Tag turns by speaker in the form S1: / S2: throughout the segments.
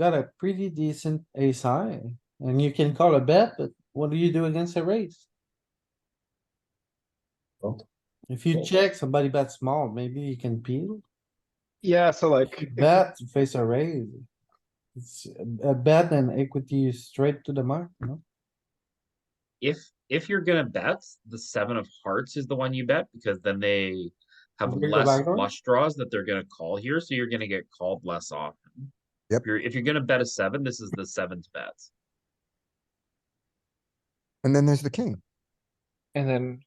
S1: got a pretty decent ace high, and you can call a bet, but what do you do against a raise?
S2: Fold.
S1: If you
S2: Fold.
S1: check, somebody bets small, maybe you can peel,
S2: Yeah, so like,
S1: You bet, you face a raise. It's a bet and equity is straight to the mark, no?
S3: If, if you're gonna bet, the seven of hearts is the one you bet, because then they have
S1: Bigger
S3: less
S1: backdoor?
S3: flush draws that they're gonna call here, so you're gonna get called less often.
S4: Yep.
S3: If you're, if you're gonna bet a seven, this is the seventh bet.
S4: And then there's the king.
S2: and then,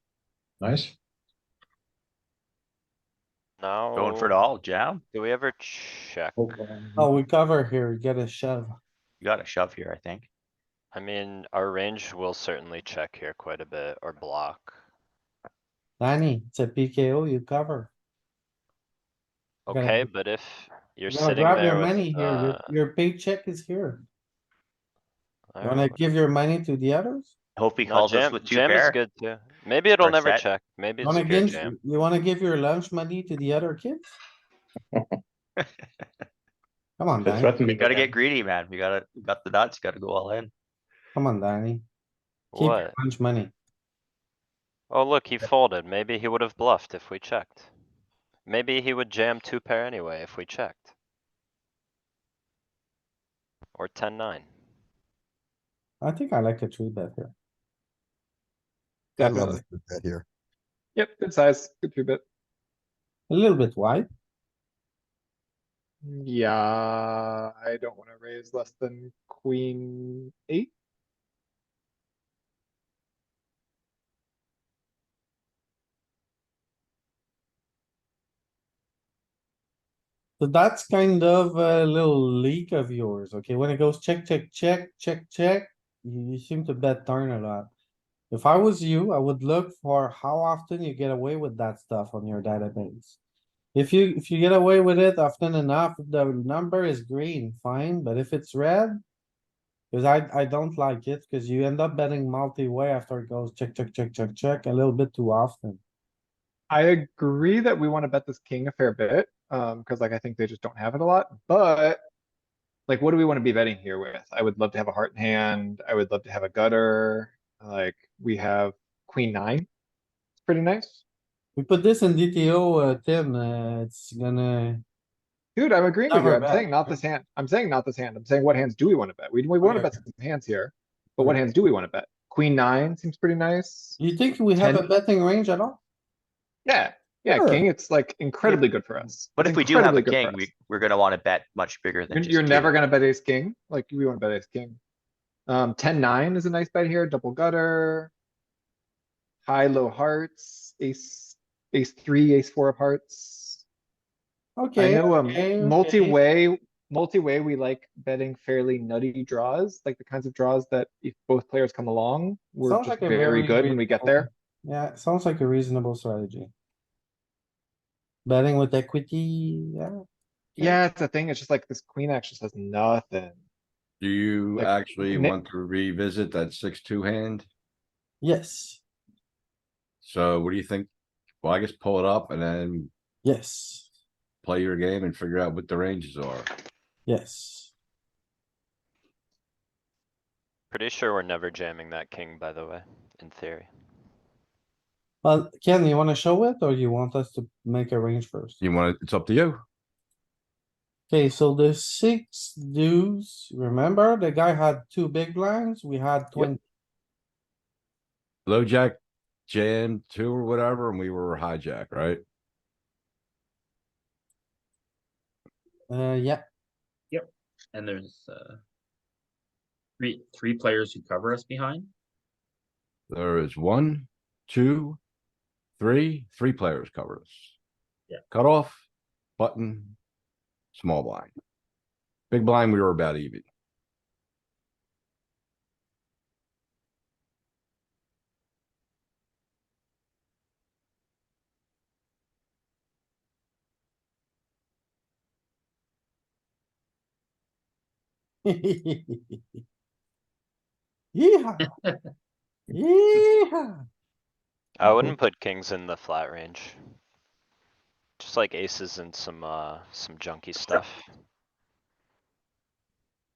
S5: Nice.
S6: No.
S7: Going for it all, jam?
S6: Oh. Do we ever check?
S1: Oh, we cover here, get a shove.
S7: You got a shove here, I think.
S6: I mean, our range will certainly check here quite a bit or block.
S1: Danny, it's a PKO, you cover. You're gonna-
S6: Okay, but if you're
S1: You gotta
S6: sitting
S1: grab
S6: there
S1: your money
S6: with,
S1: here, your,
S6: uh.
S1: your paycheck is here. You
S6: alright,
S1: wanna give your money to the others?
S7: Hope he
S6: no,
S7: calls us
S6: jam-
S7: with two
S6: Jam is
S7: pair.
S6: good too. Maybe
S7: Or
S6: it'll
S7: a
S6: never
S7: set.
S6: check. Maybe
S1: You
S6: it's a
S1: wanna
S6: good
S1: give,
S6: jam.
S1: you wanna give your lunch money to the other kids? Come on,
S5: They
S1: Danny,
S5: threaten me.
S7: You gotta get greedy, man. You gotta, you got the nuts, you gotta go all in.
S1: come on, Danny, keep your
S6: What?
S1: lunch money.
S6: Oh, look, he folded. Maybe he would have bluffed if we checked. Maybe he would jam two pair anyway if we checked. Or ten nine.
S1: I think I like a three bet here.
S4: I love
S2: definitely.
S4: this three bet here.
S2: Yep, good size, good three bit.
S1: A little bit wide,
S2: Yeah, I don't wanna raise less than queen eight.
S1: so that's kind of a little leak of yours, okay? When it goes check, check, check, check, check, you you seem to bet darn a lot. If I was you, I would look for how often you get away with that stuff on your database. If you, if you get away with it often enough, the number is green, fine, but if it's red. Cause I, I don't like it, cause you end up betting multi-way after it goes check, check, check, check, check, a little bit too often.
S2: I agree that we wanna bet this king a fair bit, um, cuz like I think they just don't have it a lot, but. Like, what do we wanna be betting here with? I would love to have a heart in hand, I would love to have a gutter, like, we have queen nine. It's pretty nice.
S1: We put this in DTO, uh, Tim, uh, it's gonna,
S2: Dude, I'm agreeing with you,
S1: Never
S2: I'm
S1: bet.
S2: saying not this hand, I'm saying not this hand, I'm saying what hands do we wanna bet? We, we wanna
S1: Okay.
S2: bet some hands here, but what hands do we wanna bet? Queen nine seems pretty nice.
S1: you think we have a
S2: Ten.
S1: betting range at all?
S2: Yeah, yeah,
S1: Sure.
S2: king, it's like incredibly good for us.
S7: But
S2: It's
S7: if we do have
S2: incredibly
S7: a
S2: good for
S7: king,
S2: us.
S7: we, we're gonna wanna bet much bigger than
S2: You're,
S7: just.
S2: you're
S7: two.
S2: never gonna bet ace king, like we wanna bet ace king. Um, ten nine is a nice bet here, double gutter. High, low hearts, ace, ace three, ace four of hearts. I
S1: Okay,
S2: know,
S1: okay, okay.
S2: um, multi-way, multi-way, we like betting fairly nutty draws, like the kinds of draws that if both players come along, we're
S1: Sounds like
S2: just
S1: a
S2: very good when we get there.
S1: reasonable- Yeah, sounds like a reasonable strategy. Betting with equity, yeah, Yeah.
S2: Yeah, it's a thing, it's just like this queen actually says nothing.
S5: Do you
S2: Like,
S5: actually
S2: Nick-
S5: want to revisit that six, two hand?
S1: yes,
S5: So what do you think? Well, I guess pull it up and then
S1: yes,
S5: play your game and figure out what the ranges are.
S1: yes.
S6: Pretty sure we're never jamming that king, by the way, in theory.
S1: Well, Ken, you wanna show it or you want us to make a range first?
S5: You want, it's up to you.
S1: Okay, so the six deuce, remember the guy had two big blinds, we had twenty,
S5: Low jack, jam two or whatever, and we were hijack, right?
S1: uh, yeah,
S3: And there's, uh. Three, three players who cover us behind.
S5: There is one, two, three, three players cover us.
S3: Yeah.
S5: Cut off, button, small blind. Big blind, we were about E even.
S1: Yeah. Yeah.
S6: I wouldn't put kings in the flat range. Just like aces and some, uh, some junky stuff.